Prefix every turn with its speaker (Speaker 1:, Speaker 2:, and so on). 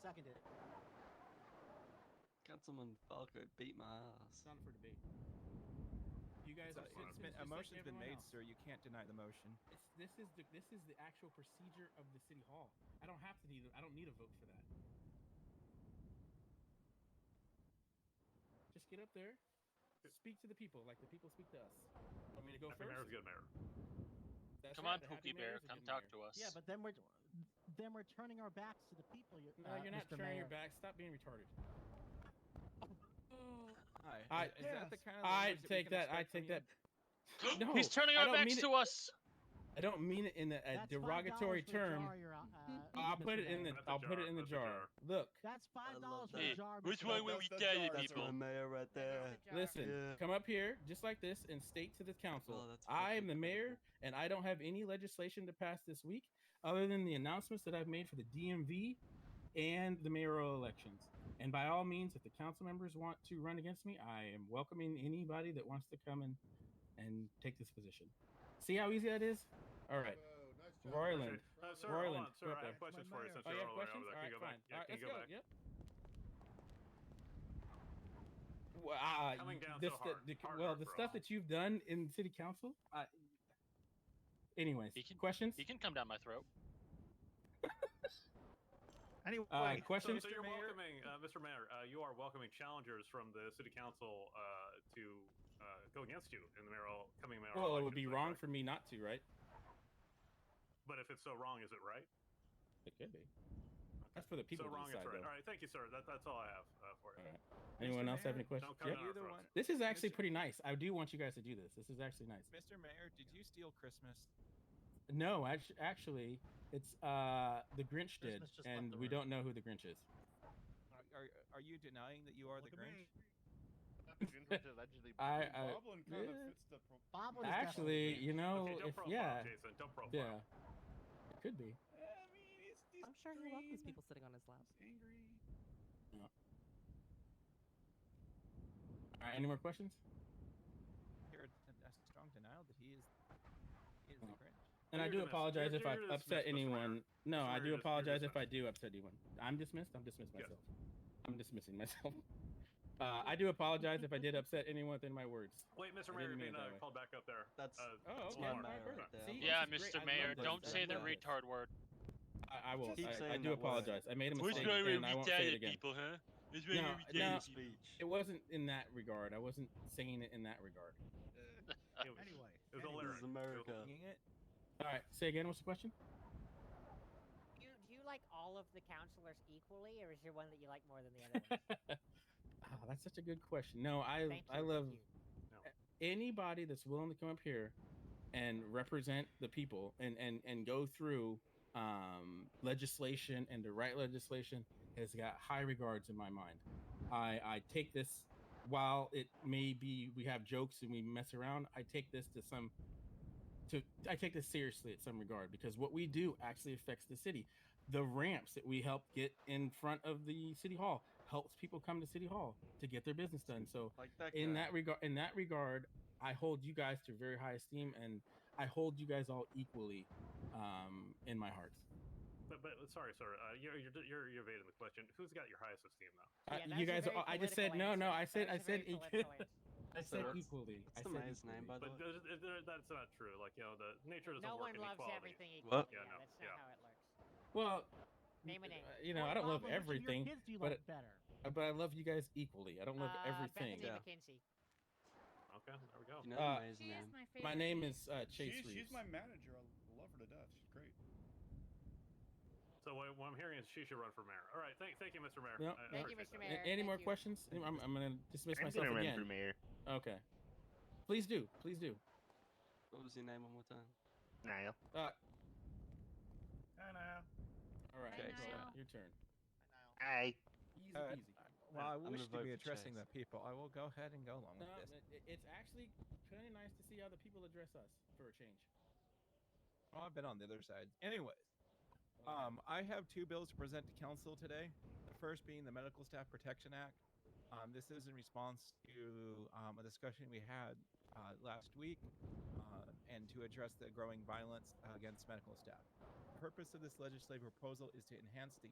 Speaker 1: seconded it.
Speaker 2: Councilman Falco beat my ass.
Speaker 1: It's not up for debate. You guys
Speaker 3: It's
Speaker 1: are
Speaker 3: a-
Speaker 1: citizens
Speaker 3: it's been-
Speaker 1: just
Speaker 3: a
Speaker 1: like
Speaker 3: motion's been
Speaker 1: everyone
Speaker 3: made,
Speaker 1: else.
Speaker 3: sir. You can't deny the motion.
Speaker 1: It's- this is the this is the actual procedure of the city hall. I don't have to need a- I don't need a vote for that. Just get up there, speak to the people like the people speak to us. Want me to go
Speaker 4: Happy
Speaker 1: first?
Speaker 4: Mayor's good mayor.
Speaker 1: That's
Speaker 5: Come
Speaker 1: right,
Speaker 5: on,
Speaker 1: the Happy
Speaker 5: Pookie
Speaker 1: Mayor
Speaker 5: Bear,
Speaker 1: is a
Speaker 5: come
Speaker 1: good
Speaker 5: talk
Speaker 1: mayor.
Speaker 5: to us.
Speaker 6: Yeah, but then we're then we're turning our backs to the people. You,
Speaker 1: No,
Speaker 6: uh,
Speaker 1: you're not
Speaker 6: Mr.
Speaker 1: turning
Speaker 6: Mayor.
Speaker 1: your back. Stop being retarded.
Speaker 3: Hi.
Speaker 1: I-
Speaker 3: is that the
Speaker 6: Yes.
Speaker 3: kind of
Speaker 1: I
Speaker 3: language we
Speaker 1: take
Speaker 3: can
Speaker 1: that. I
Speaker 3: expect from
Speaker 1: take
Speaker 3: you?
Speaker 1: that.
Speaker 5: He's
Speaker 1: No,
Speaker 5: turning
Speaker 1: I
Speaker 5: our
Speaker 1: don't
Speaker 5: backs
Speaker 1: mean it-
Speaker 5: to us.
Speaker 1: I don't mean it in a, a
Speaker 6: That's
Speaker 1: derogatory
Speaker 6: $5 for a
Speaker 1: term.
Speaker 6: jar, your, uh, uh,
Speaker 1: I'll
Speaker 6: Mr.
Speaker 1: put it in the.
Speaker 6: Mayor.
Speaker 4: That's a
Speaker 1: I'll put
Speaker 4: jar,
Speaker 1: it in the
Speaker 4: that's a
Speaker 1: jar.
Speaker 4: jar.
Speaker 1: Look,
Speaker 6: That's five dollars for
Speaker 2: that.
Speaker 6: a jar.
Speaker 5: Which
Speaker 6: Mr.
Speaker 5: way
Speaker 6: Mayor.
Speaker 5: were
Speaker 7: that's-
Speaker 5: we
Speaker 7: that's ours,
Speaker 5: guided,
Speaker 2: That's
Speaker 5: people?
Speaker 2: my mayor right there.
Speaker 1: listen.
Speaker 2: Yeah.
Speaker 1: Come up here, just like this, and state to the council.
Speaker 2: Oh, that's
Speaker 1: I
Speaker 2: fucking
Speaker 1: am the mayor, and I don't have any legislation to pass this week, other than the announcements that I've made for the DMV and the mayoral elections. And by all means, if the council members want to run against me, I am welcoming anybody that wants to come and and take this position. See how easy that is? All right. Roiland.
Speaker 4: Uh,
Speaker 1: Roiland,
Speaker 4: sir, hold on, sir.
Speaker 1: go up
Speaker 4: I
Speaker 1: there.
Speaker 4: have questions
Speaker 7: My
Speaker 4: for you
Speaker 7: mayor.
Speaker 4: since
Speaker 1: Oh, you
Speaker 4: you're
Speaker 1: have
Speaker 4: all
Speaker 1: questions?
Speaker 4: the way over there.
Speaker 1: All
Speaker 4: Can
Speaker 1: right,
Speaker 4: you go
Speaker 1: fine.
Speaker 4: back? Yeah,
Speaker 1: all right, let's
Speaker 4: can you go
Speaker 1: go.
Speaker 4: back?
Speaker 1: Yep. Well, uh,
Speaker 4: Coming
Speaker 1: you-
Speaker 4: down
Speaker 1: the
Speaker 4: so
Speaker 1: stu-
Speaker 4: hard.
Speaker 1: the-
Speaker 4: Hard
Speaker 1: well,
Speaker 4: work
Speaker 1: the
Speaker 4: for
Speaker 1: stuff
Speaker 4: all.
Speaker 1: that you've done in city council. Uh, anyways,
Speaker 5: He can-
Speaker 1: questions?
Speaker 5: He can come down my throat.
Speaker 3: Anyway,
Speaker 1: Uh,
Speaker 4: So,
Speaker 1: questions?
Speaker 4: so you're welcoming, uh, Mr. Mayor, uh, you are welcoming challengers from the city council uh, to uh, go against you in the mayoral coming mayoral.
Speaker 1: Well, it would
Speaker 4: elections,
Speaker 1: be
Speaker 4: is that
Speaker 1: wrong
Speaker 4: correct?
Speaker 1: for me not to, right?
Speaker 4: But if it's so wrong, is it right?
Speaker 1: It could be. That's for the people
Speaker 4: so
Speaker 1: to
Speaker 4: wrong,
Speaker 1: decide.
Speaker 4: it's right.
Speaker 1: though.
Speaker 4: All right, thank you, sir. That, that's all I have uh, for you.
Speaker 1: All right. Anyone else have any
Speaker 3: Mayor,
Speaker 1: questions?
Speaker 4: Don't come
Speaker 1: Yep.
Speaker 4: down our
Speaker 3: Either
Speaker 4: throats.
Speaker 3: one.
Speaker 1: This is actually
Speaker 3: Mr.
Speaker 1: pretty nice. I do want you guys to do this. This is actually nice.
Speaker 3: Mr. Mayor, did you steal Christmas?
Speaker 1: No, actu- actually, it's uh the Grinch did,
Speaker 6: Christmas just left
Speaker 1: and
Speaker 6: the
Speaker 1: we
Speaker 6: room.
Speaker 1: don't know who the Grinch is.
Speaker 3: Are, are, are you denying that you are the Grinch?
Speaker 8: allegedly.
Speaker 1: I-
Speaker 8: Dude,
Speaker 1: I-
Speaker 8: Goblin kind
Speaker 1: yeah.
Speaker 8: of fits the. Pro-
Speaker 6: Bob was
Speaker 1: Actually,
Speaker 6: definitely-
Speaker 1: you know,
Speaker 4: okay, don't
Speaker 1: if
Speaker 4: profile,
Speaker 1: yeah,
Speaker 4: Jason. Don't profile.
Speaker 1: yeah, it could be.
Speaker 8: I mean, he's, he's
Speaker 9: I'm sure he welcomes
Speaker 8: green,
Speaker 9: people sitting on his lap.
Speaker 8: He's angry.
Speaker 1: All right, any more questions?
Speaker 3: Here, a, a strong denial that he is, he is the
Speaker 1: Oh.
Speaker 3: Grinch.
Speaker 1: And I
Speaker 4: You're
Speaker 1: do
Speaker 4: dismissed.
Speaker 1: apologize
Speaker 4: You're-
Speaker 1: if
Speaker 4: you're
Speaker 1: I've
Speaker 4: dismissed,
Speaker 1: upset
Speaker 4: Mr. Mayor.
Speaker 1: anyone. No, I do
Speaker 4: Mr. Mayor, you're dis- you're
Speaker 1: apologize if I
Speaker 4: dismissed.
Speaker 1: do upset anyone. I'm dismissed. I'm dismissed
Speaker 4: Yes.
Speaker 1: myself. I'm dismissing myself. Uh, I do apologize if I did upset anyone within my words.
Speaker 4: Wait, Mr.
Speaker 1: I
Speaker 4: Mayor,
Speaker 1: didn't
Speaker 4: you're
Speaker 1: mean it
Speaker 4: being uh,
Speaker 1: that way.
Speaker 4: called back up there.
Speaker 2: That's-
Speaker 4: uh,
Speaker 1: Oh,
Speaker 2: That's
Speaker 1: okay.
Speaker 2: my mayor
Speaker 1: all right,
Speaker 2: right
Speaker 1: perfect.
Speaker 2: there.
Speaker 1: See,
Speaker 5: Yeah,
Speaker 1: this is great.
Speaker 5: Mr.
Speaker 1: I
Speaker 5: Mayor,
Speaker 1: love this. I
Speaker 5: don't say the
Speaker 1: love this.
Speaker 5: retard word.
Speaker 1: I, I will.
Speaker 2: Keep
Speaker 1: I, I
Speaker 2: saying
Speaker 1: do
Speaker 2: that word.
Speaker 1: apologize. I made a
Speaker 5: Which
Speaker 1: mistake,
Speaker 5: way were
Speaker 1: and I
Speaker 5: we
Speaker 1: won't say it
Speaker 5: guided,
Speaker 1: again.
Speaker 5: people, huh? Which way
Speaker 1: No,
Speaker 5: were
Speaker 1: no,
Speaker 5: we guided, people?
Speaker 2: speech.
Speaker 1: It wasn't in that regard. I wasn't saying it in that regard.
Speaker 4: it was-
Speaker 7: Anyway,
Speaker 4: it was
Speaker 7: anyway.
Speaker 2: This is
Speaker 4: hilarious.
Speaker 2: America.
Speaker 3: Seeing it?
Speaker 1: All right, say again. What's the question?
Speaker 10: Do you, do you like all of the counselors equally, or is there one that you like more than the other? one?
Speaker 1: Ah, that's such a good question. No, I
Speaker 10: Thank you.
Speaker 1: I
Speaker 10: thank
Speaker 1: love
Speaker 10: you.
Speaker 1: anybody that's willing to come up here and represent the people and and and go through um legislation and the right legislation has got high regards in my mind i i take this while it may be we have jokes and we mess around i take this to some to i take this seriously at some regard because what we do actually affects the city the ramps that we help get in front of the city hall helps people come to city hall to get their business done so
Speaker 7: Like that
Speaker 1: in
Speaker 7: guy.
Speaker 1: that regard in that regard i hold you guys to very high esteem and i hold you guys all equally um in my heart
Speaker 4: But, but sorry, sir. Uh, you're, you're you're you're evading the question. Who's got your highest esteem though?
Speaker 1: I-
Speaker 10: Yeah, that
Speaker 1: you
Speaker 10: was a
Speaker 1: guys
Speaker 10: very
Speaker 1: all- i just said
Speaker 10: political
Speaker 1: no no
Speaker 10: answer.
Speaker 1: i said
Speaker 10: That
Speaker 1: i
Speaker 10: was a
Speaker 1: said
Speaker 10: very
Speaker 1: equ-
Speaker 10: political answer.
Speaker 1: i said
Speaker 2: That's-
Speaker 1: equally
Speaker 2: That's
Speaker 1: I
Speaker 2: the
Speaker 1: said
Speaker 2: mayor's name,
Speaker 1: equally.
Speaker 2: by the
Speaker 4: But
Speaker 2: way.
Speaker 4: there's, there, that's not true. Like you know, the nature doesn't
Speaker 10: No
Speaker 4: work
Speaker 10: one
Speaker 4: in
Speaker 10: loves
Speaker 4: equality.
Speaker 10: everything equally.
Speaker 2: What?
Speaker 4: Yeah,
Speaker 10: Yeah,
Speaker 4: no,
Speaker 10: that's
Speaker 4: yeah.
Speaker 10: not how it works.
Speaker 1: well
Speaker 10: Name a name.
Speaker 1: uh, you know
Speaker 6: What
Speaker 1: i don't love
Speaker 6: Goblin, which of your
Speaker 1: everything
Speaker 6: kids do you
Speaker 1: but
Speaker 6: like better?
Speaker 1: uh, but i love you guys equally i don't love
Speaker 10: uh,
Speaker 1: everything
Speaker 10: Bethany
Speaker 2: Yeah.
Speaker 10: McKinsey.
Speaker 4: Okay, there we go.
Speaker 2: You know
Speaker 1: Uh,
Speaker 2: the mayor's name.
Speaker 1: my name is uh chase
Speaker 8: She's,
Speaker 1: Reeves.
Speaker 8: she's my manager. I love her to death. She's great.
Speaker 4: So what, what I'm hearing is she should run for mayor. All right, thank thank you, Mr. Mayor.
Speaker 1: No.
Speaker 4: I- I
Speaker 10: Thank you,
Speaker 4: appreciate that.
Speaker 10: Mr.
Speaker 1: A-
Speaker 10: Mayor.
Speaker 1: any
Speaker 10: Thank
Speaker 1: more
Speaker 10: you.
Speaker 1: questions Any- I'm, I'm gonna dismiss
Speaker 8: I'm
Speaker 1: myself
Speaker 8: gonna run for
Speaker 1: again
Speaker 8: mayor.
Speaker 1: okay please do please do
Speaker 2: What was your name one more time?
Speaker 8: Niall.
Speaker 1: uh
Speaker 8: Hi, Niall.
Speaker 1: all right
Speaker 2: Hi,
Speaker 1: Chase, uh,
Speaker 2: Niall.
Speaker 1: your turn
Speaker 8: Hi.
Speaker 1: easy
Speaker 3: Uh,
Speaker 1: peasy
Speaker 3: Well, I
Speaker 2: I'm gonna
Speaker 3: wish to
Speaker 2: vote
Speaker 3: be
Speaker 2: for
Speaker 3: addressing
Speaker 2: Chase.
Speaker 3: the people. I will go ahead and go along
Speaker 1: No,
Speaker 3: with this.
Speaker 1: it- it's actually kind of nice to see how the people address us for a change.
Speaker 3: Well, Oh, I've been on the other side. Anyways, um, I have two bills to present to council today. The first being the Medical Staff Protection Act. Um, this is in response to um, a discussion we had uh, last week uh, and to address the growing violence uh, against medical staff. The purpose of this legislative proposal is to enhance the